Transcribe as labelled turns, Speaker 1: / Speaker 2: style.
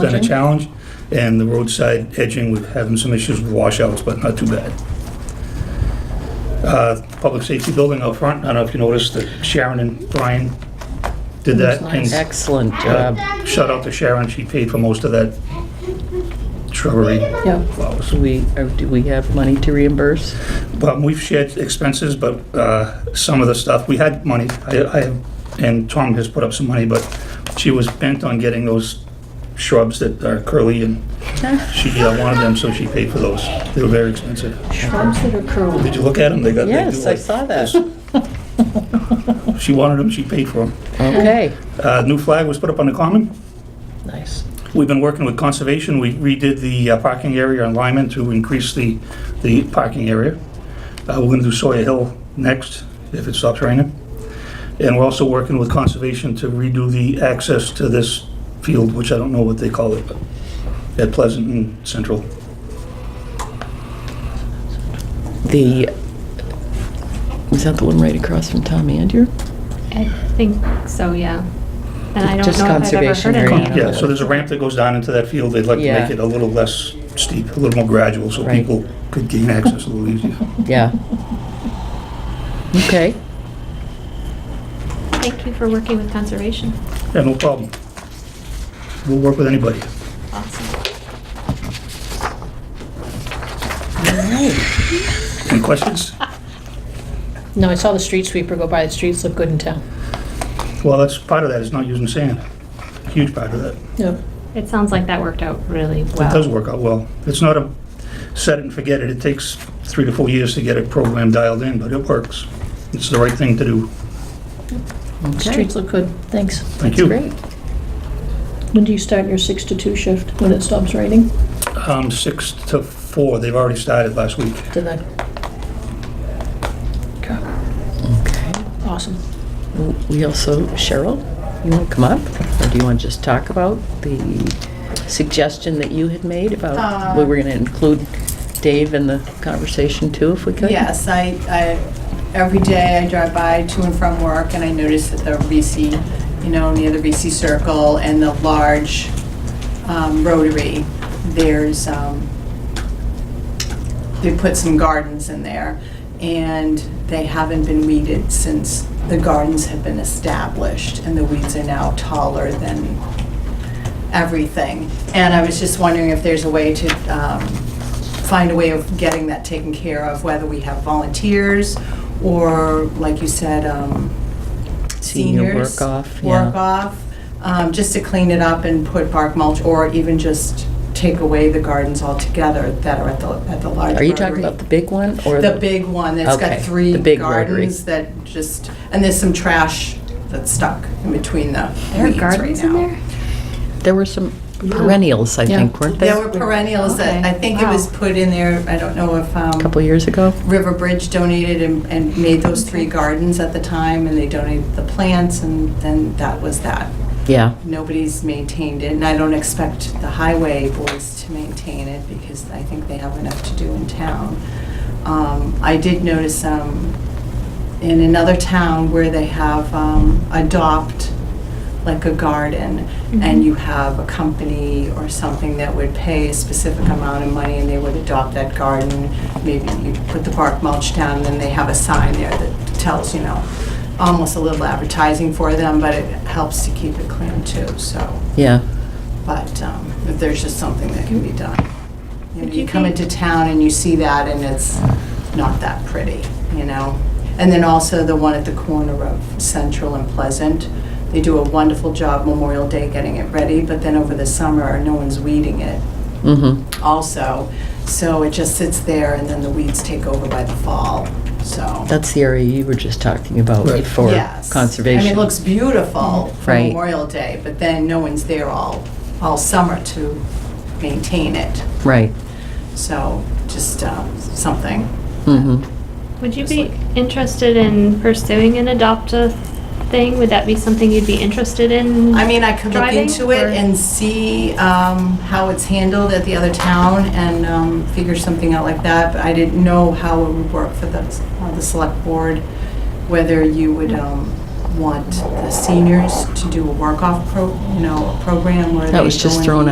Speaker 1: been a challenge, and the roadside edging, we're having some issues with washouts, but not too bad. Uh, Public safety building out front, I don't know if you noticed that Sharon and Brian did that. and
Speaker 2: Excellent
Speaker 1: uh,
Speaker 2: job.
Speaker 1: Shout out to Sharon, she paid for most of that shrubbery
Speaker 2: Yeah.
Speaker 1: flowers.
Speaker 2: Do we, or do we have money to reimburse?
Speaker 1: But we've shared expenses, but uh, some of the stuff, we had money, I, I- and Tom has put up some money, but she was bent on getting those shrubs that are curly and she uh, wanted them, so she paid for those. They were very expensive.
Speaker 3: Shrubs that are curly.
Speaker 1: Did you look at them? They got, they do
Speaker 2: Yes, I
Speaker 1: like
Speaker 2: saw that.
Speaker 1: this. She wanted them, she paid for them.
Speaker 2: Okay,
Speaker 1: Uh, New flag was put up on the common.
Speaker 2: nice.
Speaker 1: We've been working with conservation. We redid the uh, parking area on Lyman to increase the, the parking area. Uh, We're going to do Sawyer Hill next, if it stops raining. And we're also working with conservation to redo the access to this field, which I don't know what they call it, but at Pleasant and Central.
Speaker 2: The, is that the one right across from Tom Andrew?
Speaker 4: I think so, yeah. And I don't
Speaker 2: Just
Speaker 4: know if I've ever
Speaker 2: conservation
Speaker 4: heard of
Speaker 2: area.
Speaker 4: any of
Speaker 1: Yeah,
Speaker 4: those.
Speaker 1: so there's a ramp that goes down into that field. They'd like to
Speaker 2: Yeah.
Speaker 1: make it a little less steep, a little more gradual, so
Speaker 2: Right.
Speaker 1: people could gain access a little easier.
Speaker 2: Yeah. Okay,
Speaker 4: Thank you for working with conservation.
Speaker 1: Yeah, no problem. We'll work with anybody.
Speaker 4: Awesome.
Speaker 1: Any questions?
Speaker 3: No, I saw the street sweeper go by, the streets look good in town.
Speaker 1: Well, that's, part of that is not using sand. Huge part of that.
Speaker 3: No.
Speaker 4: It sounds like that worked out really well.
Speaker 1: It does work out well. It's not a set it and forget it. It takes three to four years to get a program dialed in, but it works. It's the right thing to do.
Speaker 2: okay,
Speaker 3: Streets look good, thanks.
Speaker 1: Thank
Speaker 2: that's
Speaker 1: you.
Speaker 2: great.
Speaker 3: When do you start your six to two shift, when it stops raining?
Speaker 1: Um, six to four, they've already started last week.
Speaker 3: Did I?
Speaker 2: Okay.
Speaker 3: Awesome.
Speaker 2: We also, Cheryl, you want to come up? Or do you want to just talk about the suggestion that you had made about, we were going to include Dave in the conversation too, if we could?
Speaker 5: Yes, I, I, every day I drive by to and from work and I notice that the VC, you know, near the VC Circle and the large um, rotary, there's, um, they put some gardens in there and they haven't been weeded since the gardens have been established and the weeds are now taller than everything. And I was just wondering if there's a way to um, find a way of getting that taken care of, whether we have volunteers or, like you said, um,
Speaker 2: Senior work
Speaker 5: seniors.
Speaker 2: off, yeah.
Speaker 5: Work off, um, just to clean it up and put bark mulch, or even just take away the gardens altogether that are at the, at the large
Speaker 2: Are you talking
Speaker 5: rotary.
Speaker 2: about the big one or?
Speaker 5: The big one that's
Speaker 2: Okay,
Speaker 5: got three
Speaker 2: the big rotary.
Speaker 5: gardens that just, and there's some trash that's stuck in between the
Speaker 4: There are
Speaker 5: weeds right
Speaker 4: gardens in
Speaker 5: now.
Speaker 4: there?
Speaker 2: There were some perennials, I
Speaker 3: Yeah.
Speaker 2: think, weren't
Speaker 5: There
Speaker 2: there?
Speaker 5: were perennials that,
Speaker 4: Okay,
Speaker 5: I think it was
Speaker 4: wow.
Speaker 5: put in there, I don't know if,
Speaker 2: A
Speaker 5: um,
Speaker 2: couple years ago?
Speaker 5: River Bridge donated and, and made those three gardens at the time, and they donated the plants, and then that was that.
Speaker 2: Yeah,
Speaker 5: Nobody's maintained it, and I don't expect the highway boys to maintain it, because I think they have enough to do in town. Um, I did notice, um, in another town where they have, um, adopt, like a garden, and you have a company or something that would pay a specific amount of money, and they would adopt that garden, maybe you put the bark mulch down, and then they have a sign there that tells, you know, almost a little advertising for them, but it helps to keep it clean too, so,
Speaker 2: yeah.
Speaker 5: but um, if there's just something that can be done. You know,
Speaker 4: Would you
Speaker 5: you come
Speaker 4: think-
Speaker 5: into town and you see that, and it's not that pretty, you know? And then also the one at the corner of Central and Pleasant. They do a wonderful job Memorial Day getting it ready, but then over the summer, no one's weeding it
Speaker 2: Mm-hmm.
Speaker 5: also. So it just sits there, and then the weeds take over by the fall, so.
Speaker 2: That's the area you were just talking about
Speaker 1: Right.
Speaker 2: for
Speaker 5: Yes. I mean,
Speaker 2: conservation.
Speaker 5: it looks beautiful for
Speaker 2: Right.
Speaker 5: Memorial Day, but then no one's there all, all summer to maintain it.
Speaker 2: Right.
Speaker 5: So just um, something.
Speaker 2: Mm-hmm.
Speaker 4: Would you be interested in pursuing an adopt a thing? Would that be something you'd be interested in?
Speaker 5: I mean, I could look
Speaker 4: Driving
Speaker 5: into it
Speaker 4: or-
Speaker 5: and see um, how it's handled at the other town and um, figure something out like that, but I didn't know how it would work for the, uh, the select board, whether you would um, want the seniors to do a work-off pro, you know, a program where they
Speaker 2: That was
Speaker 5: go
Speaker 2: just
Speaker 5: in
Speaker 2: thrown